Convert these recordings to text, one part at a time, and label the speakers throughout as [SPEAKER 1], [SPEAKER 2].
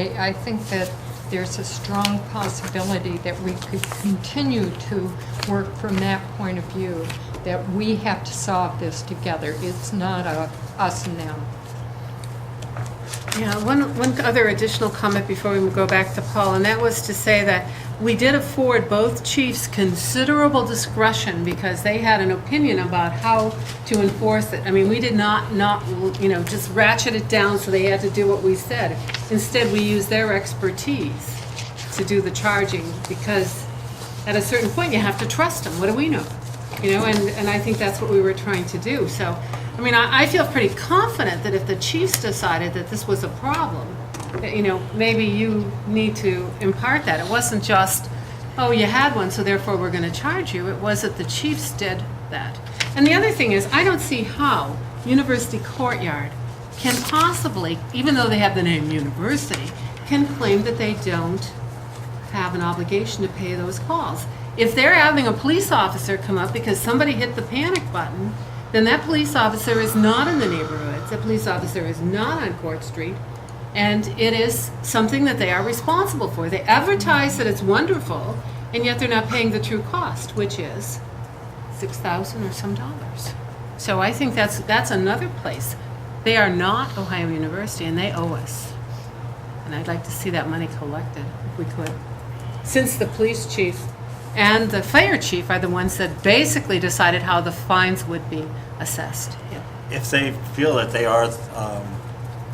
[SPEAKER 1] I I think that there's a strong possibility that we could continue to work from that point of view, that we have to solve this together. It's not a us and them.
[SPEAKER 2] Yeah, one, one other additional comment before we go back to Paul, and that was to say that we did afford both chiefs considerable discretion because they had an opinion about how to enforce it. I mean, we did not, not, you know, just ratchet it down so they had to do what we said. Instead, we used their expertise to do the charging because at a certain point, you have to trust them. What do we know? You know, and, and I think that's what we were trying to do. So, I mean, I, I feel pretty confident that if the chiefs decided that this was a problem, that, you know, maybe you need to impart that. It wasn't just, oh, you had one, so therefore we're going to charge you. It was that the chiefs did that. And the other thing is, I don't see how University Courtyard can possibly, even though they have the name university, can claim that they don't have an obligation to pay those calls. If they're having a police officer come up because somebody hit the panic button, then that police officer is not in the neighborhoods, that police officer is not on Court Street, and it is something that they are responsible for. They advertise that it's wonderful, and yet they're not paying the true cost, which is six thousand or some dollars. So I think that's, that's another place. They are not Ohio University, and they owe us. And I'd like to see that money collected, if we could. Since the police chief and the fire chief are the ones that basically decided how the fines would be assessed.
[SPEAKER 3] If they feel that they are um,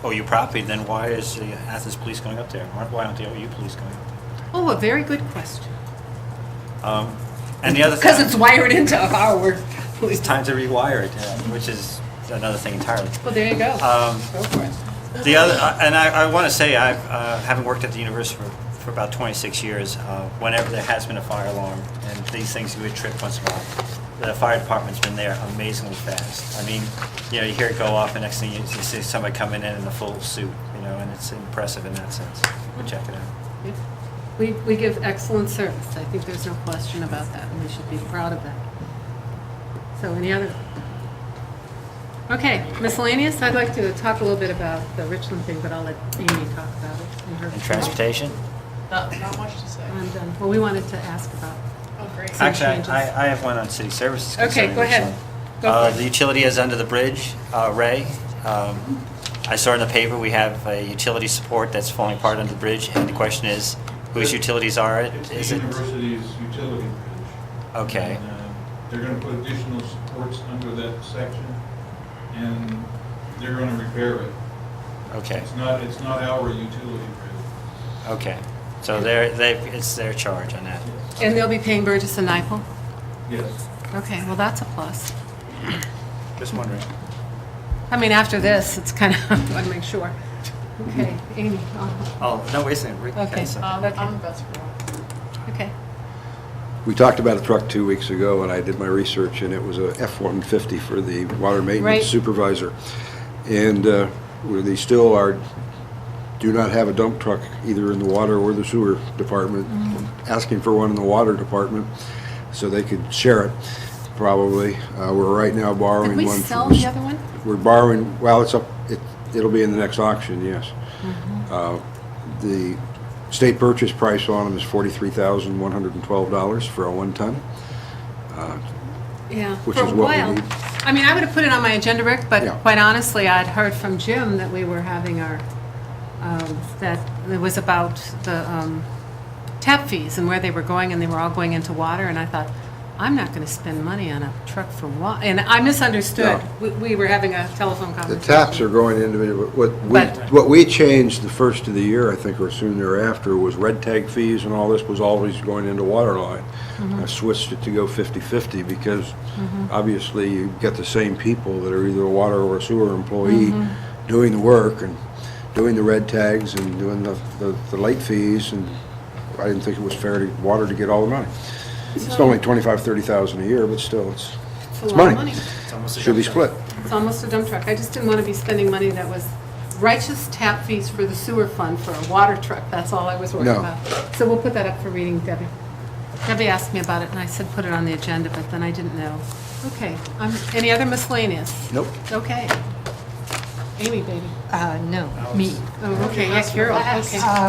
[SPEAKER 3] OU property, then why is the Athens police going up there? Why why aren't the OU police going up there?
[SPEAKER 2] Oh, a very good question.
[SPEAKER 3] Um, And the other
[SPEAKER 2] Because
[SPEAKER 3] thing,
[SPEAKER 2] it's wired into our,
[SPEAKER 3] it's time to rewire it, uh, which is another thing entirely.
[SPEAKER 2] well, there you go.
[SPEAKER 3] Um,
[SPEAKER 2] Go for it.
[SPEAKER 3] The other, uh, and I, I want to say, I uh, haven't worked at the university for, for about 26 years. Uh, whenever there has been a fire alarm, and these things do a trip once in a while, the fire department's been there amazingly fast. I mean, you know, you hear it go off, and next thing you, you see somebody coming in in a full suit, you know, and it's impressive in that sense. But check it out.
[SPEAKER 2] Yeah. We, we give excellent service. I think there's no question about that, and we should be proud of that. So any other? Okay, miscellaneous, I'd like to talk a little bit about the Richland thing, but I'll let Amy talk about it. in her-
[SPEAKER 3] And transportation?
[SPEAKER 4] Not, not much to say.
[SPEAKER 2] I'm done. Well, we wanted to ask about,
[SPEAKER 4] Oh, great.
[SPEAKER 2] Some
[SPEAKER 3] Actually,
[SPEAKER 2] changes.
[SPEAKER 3] I, I have one on city services.
[SPEAKER 2] Okay,
[SPEAKER 3] concerning
[SPEAKER 2] go ahead.
[SPEAKER 3] Richland.
[SPEAKER 2] Go
[SPEAKER 3] Uh,
[SPEAKER 2] for it.
[SPEAKER 3] The utility is under the bridge, uh, Ray. Um, I saw in the paper, we have a utility support that's falling apart under the bridge, and the question is, whose utilities are it?
[SPEAKER 5] It's
[SPEAKER 3] Is
[SPEAKER 5] the
[SPEAKER 3] it,
[SPEAKER 5] university's utility bridge.
[SPEAKER 3] okay,
[SPEAKER 5] And, uh, They're gonna put additional supports under that section, and they're gonna repair it.
[SPEAKER 3] okay,
[SPEAKER 5] It's not, it's not our utility bridge.
[SPEAKER 3] okay. So they're, they, it's their charge on that.
[SPEAKER 2] and they'll be paying Burgess and Nyepel?
[SPEAKER 5] Yes.
[SPEAKER 2] Okay, well, that's a plus.
[SPEAKER 3] Just wondering.
[SPEAKER 2] I mean, after this, it's kind of, I want to make sure. Okay, Amy, I'll-
[SPEAKER 3] Oh, no, wait a second. Rick had
[SPEAKER 2] Okay.
[SPEAKER 3] something.
[SPEAKER 4] Um,
[SPEAKER 2] Okay.
[SPEAKER 4] I'm the best for one.
[SPEAKER 2] okay.
[SPEAKER 6] We talked about a truck two weeks ago, and I did my research, and it was a F-150 for the water
[SPEAKER 2] Right.
[SPEAKER 6] maintenance supervisor. And uh, we they still are, do not have a dump truck either in the water or the sewer department,
[SPEAKER 2] Mm.
[SPEAKER 6] asking for one in the water department, so they could share it, probably. Uh, We're right now borrowing
[SPEAKER 2] Did
[SPEAKER 6] one.
[SPEAKER 2] we
[SPEAKER 6] from
[SPEAKER 2] sell
[SPEAKER 6] s-
[SPEAKER 2] the other one?
[SPEAKER 6] We're borrowing, well, it's up, it- it'll be in the next auction, yes. Uh, The state purchase price on them is $43,112 for a one-ton.
[SPEAKER 2] Yeah,
[SPEAKER 6] which
[SPEAKER 2] for a
[SPEAKER 6] is what we
[SPEAKER 2] while.
[SPEAKER 6] need.
[SPEAKER 2] I mean, I would have put it on my agenda, Rick, but
[SPEAKER 6] Yeah.
[SPEAKER 2] quite honestly, I'd heard from Jim that we were having our, um, that it was about the um, tap fees and where they were going, and they were all going into water, and I thought, I'm not going to spend money on a truck for wa, and I misunderstood.
[SPEAKER 6] Yeah.
[SPEAKER 2] We- We were having a telephone
[SPEAKER 6] The
[SPEAKER 2] conversation.
[SPEAKER 6] taps are going into, what we,
[SPEAKER 2] But-
[SPEAKER 6] what we changed the first of the year, I think, or soon thereafter, was red tag fees and all this was always going into water line. I switched it to go 50/50 because obviously you get the same people that are either a water or a sewer employee doing the work and doing the red tags and doing the, the- the late fees and I didn't think it was fair to water to get all the money. It's
[SPEAKER 4] So-
[SPEAKER 6] only 25, 30,000 a year, but still, it's,
[SPEAKER 2] It's a
[SPEAKER 6] it's
[SPEAKER 2] lot of
[SPEAKER 6] money.
[SPEAKER 3] It's almost a
[SPEAKER 6] Should be
[SPEAKER 3] dump
[SPEAKER 6] split.
[SPEAKER 3] truck.
[SPEAKER 2] It's almost a dump truck. I just didn't want to be spending money that was righteous tap fees for the sewer fund for a water truck. That's all I was worried
[SPEAKER 6] No.
[SPEAKER 2] about. So we'll put that up for reading, Debbie. Debbie asked me about it, and I said put it on the agenda, but then I didn't know. Okay, um, any other miscellaneous?
[SPEAKER 6] Nope.
[SPEAKER 2] Okay. Amy, baby.
[SPEAKER 1] Uh, no, me. Uh,
[SPEAKER 2] Oh, okay, yeah, Carol, okay.